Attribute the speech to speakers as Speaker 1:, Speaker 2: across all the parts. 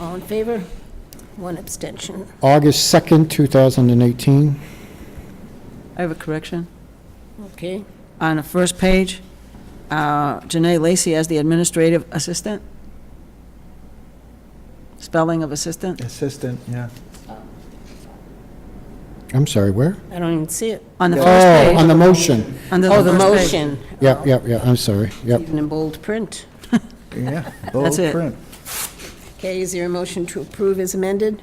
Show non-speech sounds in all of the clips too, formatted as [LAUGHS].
Speaker 1: All in favor? One abstention.
Speaker 2: August 2nd, 2018.
Speaker 3: I have a correction.
Speaker 1: Okay,
Speaker 3: On the first page, uh, Janae Lacy as the administrative assistant. Spelling of assistant.
Speaker 4: Assistant, yeah.
Speaker 2: I'm sorry, where?
Speaker 1: I don't even see it.
Speaker 3: On the
Speaker 2: Oh, on
Speaker 3: first
Speaker 2: the motion.
Speaker 3: page. under
Speaker 1: Oh, the
Speaker 3: first page.
Speaker 1: motion.
Speaker 2: Yep, yep, yep, I'm sorry, yep.
Speaker 1: Even in bold print.
Speaker 3: [LAUGHS]
Speaker 4: Yeah. bold
Speaker 3: That's it.
Speaker 4: print.
Speaker 1: Okay, is there a motion to approve as amended?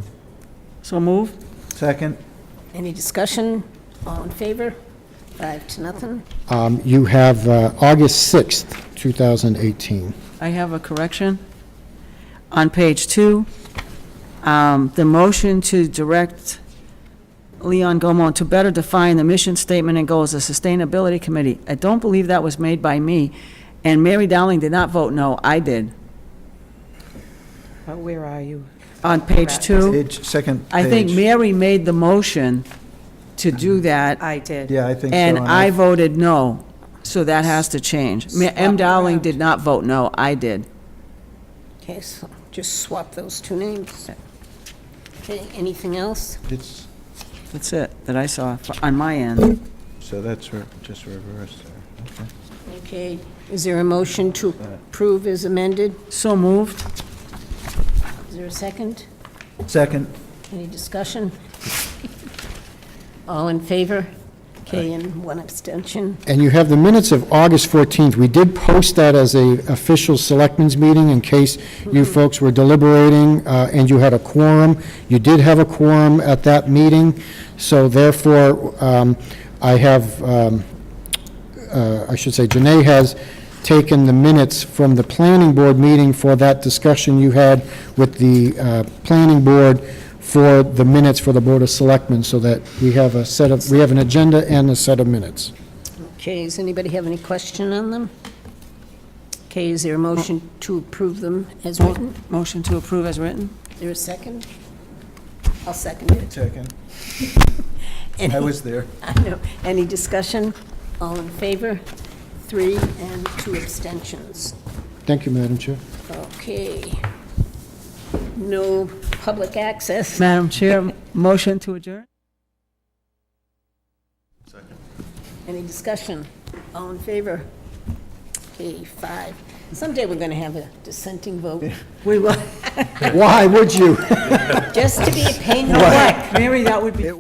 Speaker 3: So move.
Speaker 4: Second,
Speaker 1: Any discussion? All in favor? Five to nothing.
Speaker 2: Um, You have uh, August 6th, 2018.
Speaker 3: I have a correction. On page two, um, the motion to direct Leon Gomez to better define the mission statement and goals of Sustainability Committee. I don't believe that was made by me, and Mary Dowling did not vote no, I did.
Speaker 5: Uh, Where are you?
Speaker 3: On page two,
Speaker 4: page, second page. Mm-hmm.
Speaker 3: I think Mary made the motion to do that,
Speaker 5: I did.
Speaker 4: Yeah, I think so.
Speaker 3: and I
Speaker 4: I've-
Speaker 3: voted no, so that has to change. Ma- M. Dowling did not vote no, I did.
Speaker 1: Okay, so just swap those two names. Okay, anything else?
Speaker 4: it's-
Speaker 3: That's it, that I saw f- on my end.
Speaker 4: So that's re- just reversed there. Okay.
Speaker 1: Okay, is there a motion to approve as amended?
Speaker 3: So moved.
Speaker 1: Is there a second?
Speaker 4: Second,
Speaker 1: Any discussion? [LAUGHS] All in favor? Okay, and one abstention.
Speaker 2: And you have the minutes of August 14th. We did post that as a official selectmen's meeting in case you folks were deliberating uh, and you had a quorum. You did have a quorum at that meeting, so therefore, um, I have, um, uh, I should say, Janae has taken the minutes from the planning board meeting for that discussion you had with the uh, planning board for the minutes for the Board of Selectmen, so that we have a set of, we have an agenda and a set of minutes.
Speaker 1: Okay, does anybody have any question on them? Okay, is there a motion to approve them as written?
Speaker 3: Motion to approve as written?
Speaker 1: Is there a second? I'll second it. [LAUGHS]
Speaker 4: second. [LAUGHS] I
Speaker 1: Any,
Speaker 4: was there.
Speaker 1: I know, any discussion? All in favor? Three and two abstentions.
Speaker 2: Thank you, Madam Chair.
Speaker 1: Okay. No public access.
Speaker 3: Madam Chair, motion to adjourn?
Speaker 1: Any discussion? All in favor? Okay, five. Someday we're going to have a dissenting vote.
Speaker 3: We will.
Speaker 2: Why would you?
Speaker 1: Just to be a pain in the neck.
Speaker 3: Mary, that would be.